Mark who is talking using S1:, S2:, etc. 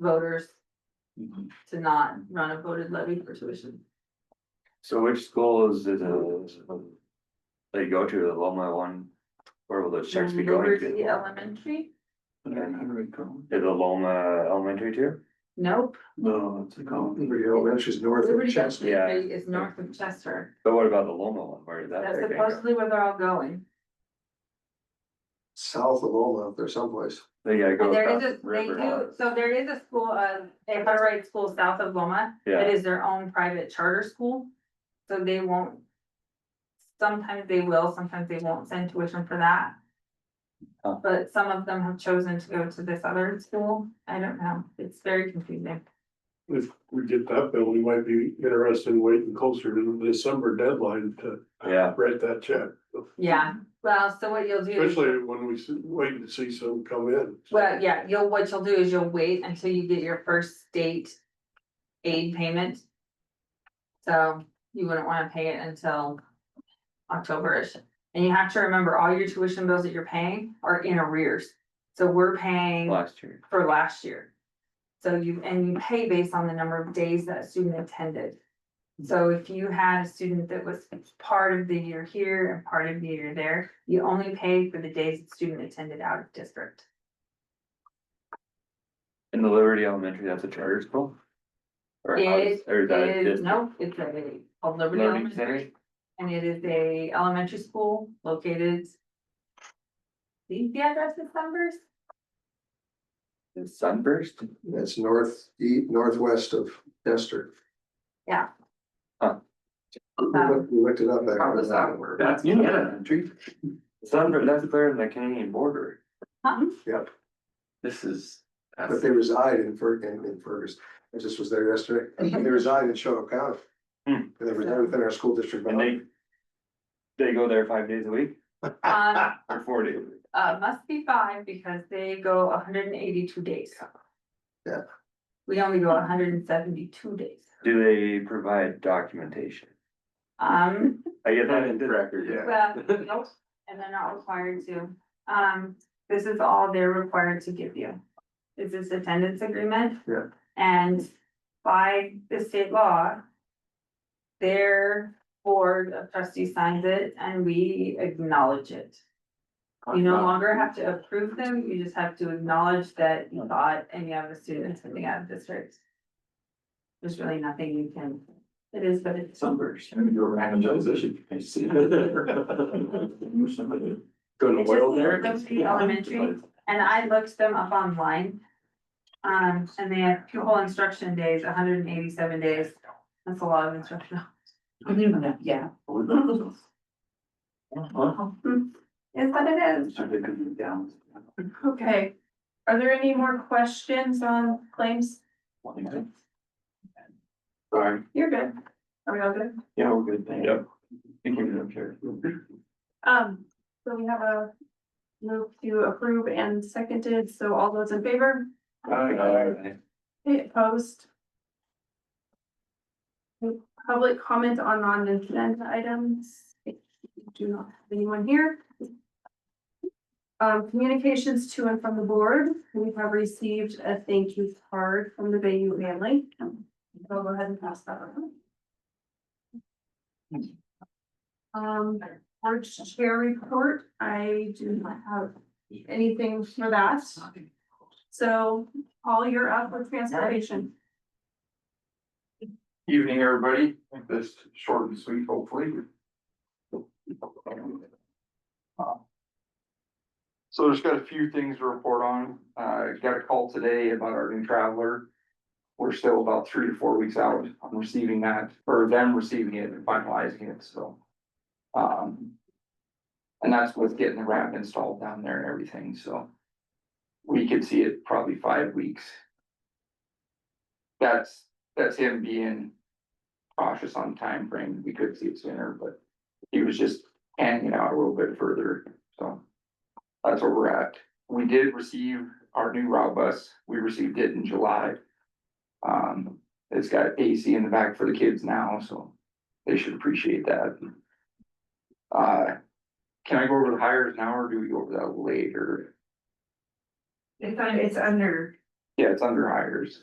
S1: voters
S2: Mhm.
S1: to not run a voted levy for tuition.
S2: So which schools is it? They go to the Loma one, where will those checks
S1: Mm,
S2: be going to?
S1: Liberty Elementary,
S2: Is the Loma elementary too?
S1: nope,
S3: No, it's a common. She's north of
S1: Liberty
S3: Chester.
S1: Elementary
S2: Yeah.
S1: is north of Chester,
S2: But what about the Loma one, where did that?
S1: that's
S2: thing go?
S1: supposedly where they're all going.
S3: South of Loma, up there someplace.
S2: They gotta go
S1: And there
S2: across
S1: is a,
S2: the
S1: they
S2: river. huh?
S1: do, so there is a school, uh, a private school south of Loma, that
S2: Yeah,
S1: is their own private charter school. So they won't. Sometimes they will, sometimes they won't send tuition for that.
S2: Huh.
S1: But some of them have chosen to go to this other school, I don't know, it's very confusing.
S4: If we get that bill, we might be interested in waiting closer to the December deadline to
S2: yeah,
S4: write that check.
S1: Yeah, well, so what you'll do. is-
S4: Especially when we see- wait to see some come in.
S1: Well, yeah, you'll, what you'll do is you'll wait until you get your first state aid payment. So you wouldn't wanna pay it until Octoberish. And you have to remember, all your tuition bills that you're paying are in arrears. So we're paying
S2: last year.
S1: for last year. So you, and you pay based on the number of days that a student attended.
S2: Mm-hmm.
S1: So if you had a student that was part of the year here and part of the year there, you only pay for the days the student attended out of district.
S2: In the Liberty Elementary, that's a charter school? Or how is,
S1: It
S2: or is that a
S1: is,
S2: district?
S1: no, it's a, a
S2: Learning
S1: Liberty Elementary,
S2: Center?
S1: and it is a elementary school located. These the addresses numbers,
S2: In Sunburst?
S3: That's north, e- northwest of Chester.
S1: Yeah.
S2: Huh.
S3: We looked- we looked it up. back
S5: How does
S3: then.
S5: that work?
S2: That's New Elementary. Sunburst, that's there in the Canadian border.
S1: huh?
S3: Yep,
S2: This is.
S3: but
S2: that's-
S3: they reside in Fer, in, in Fergus. I just was there yesterday. They reside in Shoto County.
S2: Mm-hmm. Hmm.
S3: And they reside within our school district.
S2: And they. They go there five days a week
S1: Um,
S2: or four days? a week?
S1: uh, must be five because they go hundred and eighty-two days.
S3: Yeah.
S1: We only go hundred and seventy-two days,
S2: Do they provide documentation?
S1: um.
S2: I get that in record,
S1: Well, nope, and they're not required to. Um, this is all they're required to give you. Is this attendance agreement?
S3: Yeah.
S1: And by the state law. Their board of trustees signs it and we acknowledge it. You
S5: Uh-huh.
S1: no longer have to approve them, you just have to acknowledge that you thought and you have a student attending out of district. There's really nothing you can, it is, but it's.
S5: Sunburst, I'm gonna do a random transition. I see. Go
S1: It's just Liberty Elementary. And I looked them up online. Um, and they have pupil instruction days, hundred and eighty-seven days. That's a lot of instruction.
S5: Yeah.
S1: Is that it is.
S6: Okay, are there any more questions on claims?
S5: Sorry,
S6: You're good. Are we all good?
S5: yeah, we're good, thank
S2: Yep.
S5: you. Thank you, I'm sure.
S6: Um, so we have a move to approve and seconded, so all those in favor, Any opposed? Public comment on non-agenda items, if you do not have anyone here. Um, communications to and from the board, we have received a thank you card from the Bayou family. I'll go ahead and pass that around. Um, board chair report, I do not have anything for that. So Paul, you're up with transportation.
S5: Evening, everybody. Make this short and sweet, hopefully. Uh, So there's got a few things to report on. Uh, got a call today about our new traveler. We're still about three to four weeks out on receiving that, or them receiving it and finalizing it, so. Um. And that's with getting the ramp installed down there and everything, so. We could see it probably five weeks. That's that's him being cautious on time frame. We could see it sooner, but he was just hanging out a little bit further, so. That's where we're at. We did receive our new route bus. We received it in July. Um, it's got AC in the back for the kids now, so they should appreciate that. Uh, can I go over the hires now or do we go over that later?
S6: It's on, it's under
S5: Yeah, it's under hires.